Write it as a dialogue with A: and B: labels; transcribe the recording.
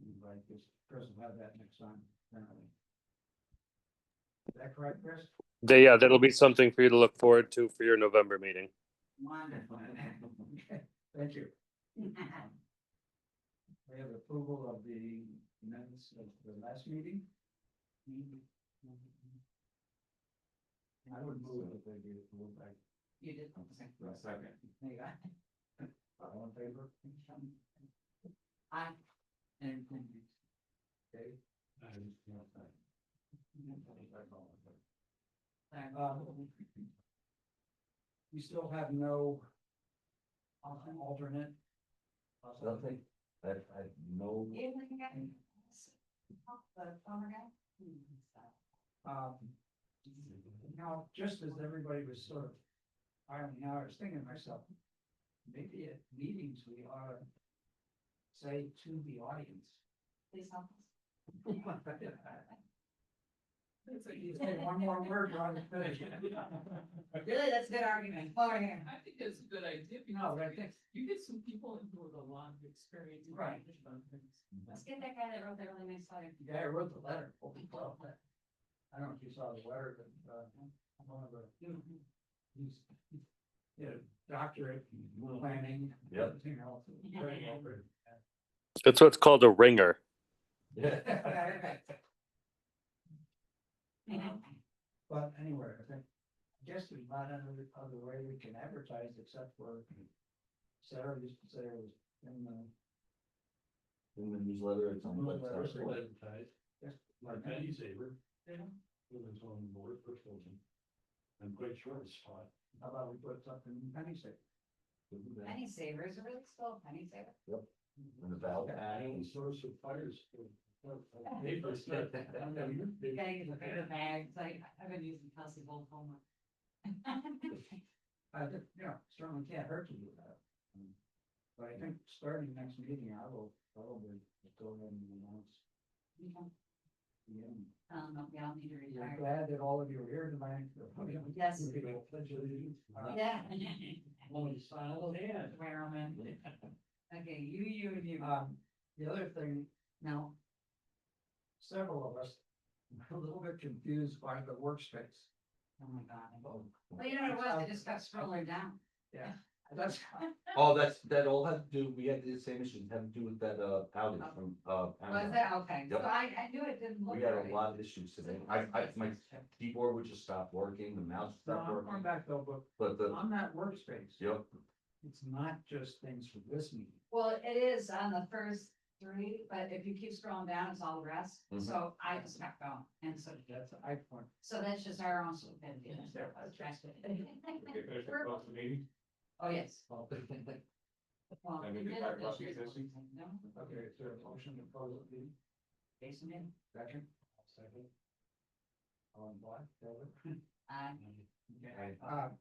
A: everybody, because Chris will have that next time, apparently. Is that correct, Chris?
B: Th- yeah, that'll be something for you to look forward to for your November meeting.
A: Wonderful. Okay, Thank you. We have approval of the minutes of the last meeting. I would move it if they did move back. You did. Second. There you go. All in favor? Aye. And. Okay. Uh, we still have no al- alternate.
C: Nothing, I, I know,
A: Um, Now, just as everybody was sort of, ironing out, I was thinking to myself, maybe at meetings we ought to say to the audience. You say one more word, we're on the finish.
D: Really, that's a good argument. Over here.
E: I think that's a good idea,
A: No,
E: because
A: but I think-
E: you get some people who have a lot of experience. in
A: Right.
E: management things.
D: Let's get that guy that wrote that really nice letter.
A: The guy who wrote the letter, holy cow. I don't know if you saw the letter, but, uh, one of the, he's, you know, doctorate, in planning.
C: Yep.
A: everything else, very well written.
B: That's what's called a ringer.
C: yeah,
A: But anyway, I think, I guess there's not another other way we can advertise except for Sarah used to say it was in the.
C: in the newsletter, it's on the website.
F: advertised,
A: Yes.
F: like Patty Saver,
A: Yeah.
F: women's on board for children. I'm quite sure it's hot.
A: How about we put something, Penny said.
D: Penny saver is it really still a penny saver.
C: And the valve
F: And
C: padding,
F: source of fires. Paper stuff.
D: You gotta get the paper bags. Like, I've been using Kelsey's old homework.
A: I think, you know, certainly can't hurt to do that. Um, But I think starting next meeting, I will probably go ahead and announce. the end.
D: Um, we all need to
A: We're
D: retire.
A: glad that all of you are here tonight.
D: Yes.
A: We're gonna pledge allegiance.
D: Yeah.
A: Only silent hand.
D: Wear 'em in. Okay, you, you, and you.
A: Um, the other thing,
D: No,
A: several of us were a little bit confused by the workspace.
D: oh my God. Well, you know what it was? I just kept scrolling down.
A: That's,
C: oh, that's, that all had to do, we had the same issues, had to do with that, uh, outage from, uh.
D: Oh. Was
C: Amazon.
D: that, okay, so
C: Yep.
D: I, I knew it didn't look
C: We
D: right.
C: had a lot of issues today, I, I, my keyboard would just stop working, the mouse
A: no,
C: stopped
A: I'm going
C: working,
A: back though, but
C: but the,
A: on that workspace,
C: yep,
A: it's not just things for this meeting.
D: Well, it is on the first three, but if you keep scrolling down, it's all the rest,
C: Mhm.
D: so I just kept going, and so,
A: That's, I point.
D: so that's just our own sort of benefit, that's their post trash.
F: Across the meeting,
D: Oh, yes.
A: Oh,
D: Well,
F: I
D: we
F: mean,
D: did
F: fire
D: it this
F: bus
D: year,
F: existing?
D: No,
A: Okay, is there a motion to close the meeting?
D: Jason did,
A: Second? Second. On black, David?
D: I,
A: Okay, uh,